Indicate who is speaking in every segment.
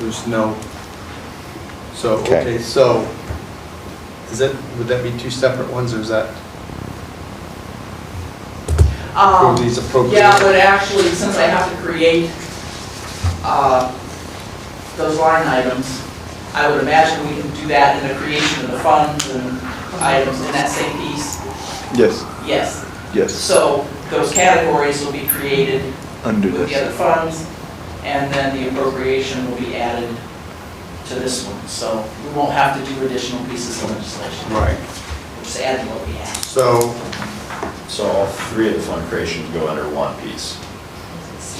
Speaker 1: there's no, so,
Speaker 2: Okay.
Speaker 1: okay, so, is that, would that be two separate ones, or is that,
Speaker 3: Um,
Speaker 1: Approve these, appropriate.
Speaker 3: Yeah, but actually, since I have to create uh, those line items, I would imagine we can do that in the creation of the funds and items in that same piece,
Speaker 2: Yes,
Speaker 3: yes.
Speaker 2: yes,
Speaker 3: So those categories will be created
Speaker 2: under
Speaker 3: with the
Speaker 2: this.
Speaker 3: other funds, and then the appropriation will be added to this one. So we won't have to do additional pieces of legislation,
Speaker 1: right,
Speaker 3: We'll just add what we have.
Speaker 1: so,
Speaker 4: So all three of the fund creations go under one piece?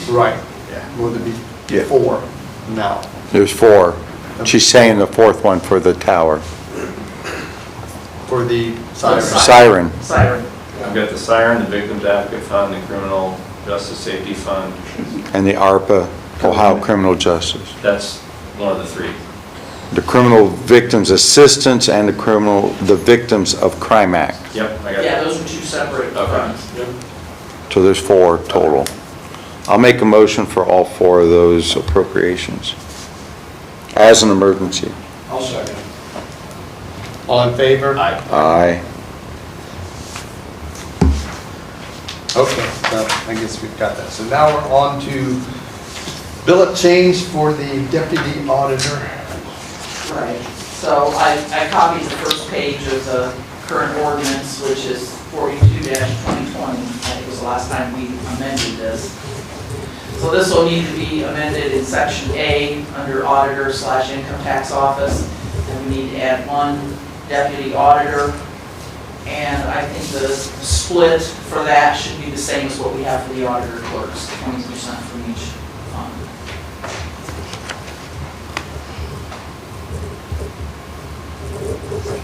Speaker 1: right,
Speaker 4: Yeah.
Speaker 1: would it be
Speaker 2: Yeah.
Speaker 1: four now?
Speaker 2: There's four. She's saying the fourth one for the tower.
Speaker 1: For the siren?
Speaker 2: Siren,
Speaker 3: Siren.
Speaker 4: I've got the siren, the victims advocate fund, the criminal justice safety fund.
Speaker 2: and the ARPA, Ohio Criminal Justice.
Speaker 4: That's one of the three.
Speaker 2: The Criminal Victims Assistance and the Criminal, the Victims of Crime Act.
Speaker 4: Yep, I got
Speaker 3: Yeah,
Speaker 4: that.
Speaker 3: those are two separate
Speaker 4: Okay.
Speaker 3: funds.
Speaker 2: So there's four total. I'll make a motion for all four of those appropriations as an emergency.
Speaker 1: I'll second. All in favor?
Speaker 4: Aye.
Speaker 2: Aye.
Speaker 1: Okay, so I guess we've got that. So now we're on to billet change for the deputy auditor.
Speaker 3: Right, so I, I copied the first page of the current ordinance, which is forty-two twenty twenty. I think it was the last time we amended this. So this will need to be amended in section A, under auditor slash income tax office. And we need to add one deputy auditor. And I think the split for that should be the same as what we have for the auditor clerks, twenty percent from each fund.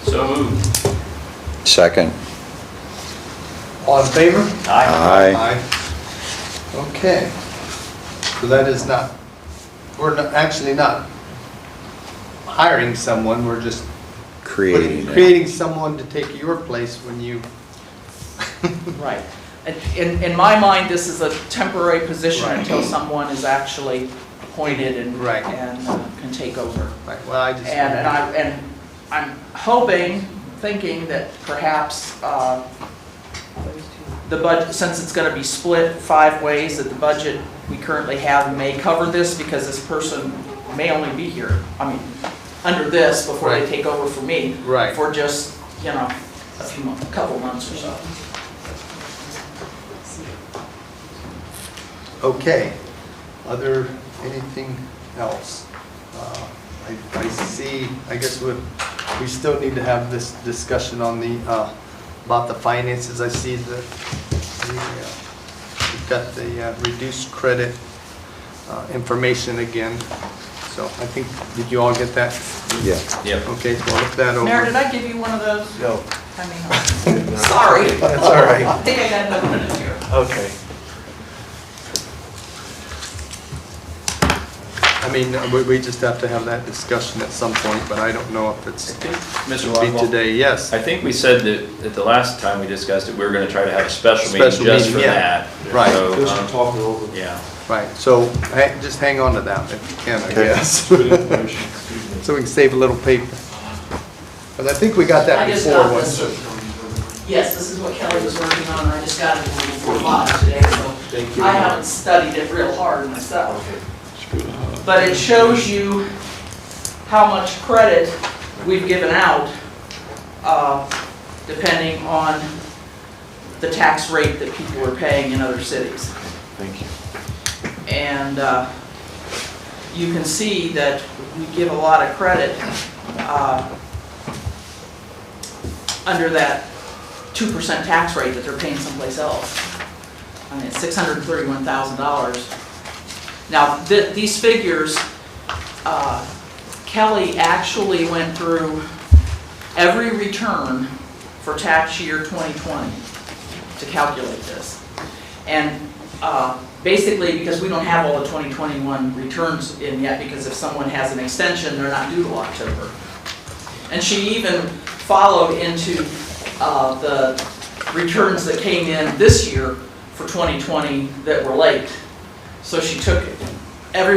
Speaker 4: So moved.
Speaker 2: Second.
Speaker 1: All in favor?
Speaker 2: Aye.
Speaker 1: Okay. So that is not, we're not- actually not hiring someone, we're just
Speaker 2: Creating it.
Speaker 1: creating someone to take your place when you,
Speaker 3: Right. In, in my mind, this is a temporary position
Speaker 1: Right.
Speaker 3: until someone is actually appointed and,
Speaker 1: Right.
Speaker 3: and uh, can take over.
Speaker 1: like, well, I
Speaker 3: And,
Speaker 1: just.
Speaker 3: and I, and I'm hoping, thinking that perhaps, uh, the budget, since it's gonna be split five ways, that the budget we currently have may cover this, because this person may only be here, I mean, under this, before they
Speaker 1: Right.
Speaker 3: take over for me.
Speaker 1: Right.
Speaker 3: For just, you know, a few months, a couple months or so.
Speaker 1: Okay. Other, anything else? Uh, I I see, I guess we, we still need to have this discussion on the, uh, about the finances. I see that we, uh, we've got the uh, reduced credit uh, information again. So I think, did you all get that?
Speaker 2: Yeah.
Speaker 4: Yep.
Speaker 1: Okay, so I'll look that over.
Speaker 3: Mayor, did I give you one of those?
Speaker 1: No.
Speaker 3: I mean, Sorry.
Speaker 1: That's all right.
Speaker 3: I think I got another one in here.
Speaker 1: Okay. I mean, we, we just have to have that discussion at some point, but I don't know if it's to
Speaker 4: Mr.
Speaker 1: be
Speaker 4: Rockwell,
Speaker 1: today, yes.
Speaker 4: I think we said that, that the last time we discussed it, we were gonna try to have a special
Speaker 1: Special
Speaker 4: meeting just for
Speaker 1: meeting, yeah.
Speaker 4: that.
Speaker 1: Right.
Speaker 4: So, um,
Speaker 5: Just to talk it over.
Speaker 4: Yeah.
Speaker 1: Right, so, ha- just hang on to that if you can, I
Speaker 2: Okay.
Speaker 1: guess.
Speaker 5: Good information, excuse me.
Speaker 1: So we can save a little paper. But I think we got that
Speaker 3: I just
Speaker 1: before,
Speaker 3: got
Speaker 1: was
Speaker 3: this. Yes, this is what Kelly was working on, and I just got it before five today, so
Speaker 5: Thank you.
Speaker 3: I haven't studied it real hard myself.
Speaker 5: Okay.
Speaker 3: But it shows you how much credit we've given out, uh, depending on the tax rate that people are paying in other cities.
Speaker 5: Thank you.
Speaker 3: And uh, you can see that we give a lot of credit uh, under that 2% tax rate that they're paying someplace else. I mean, it's $631,000. Now, th- these figures, uh, Kelly actually went through every return for tax year 2020 to calculate this. And uh, basically, because we don't have all the 2021 returns in yet, because if someone has an extension, they're not due till October. And she even followed into uh, the returns that came in this year for 2020 that were late. So she took every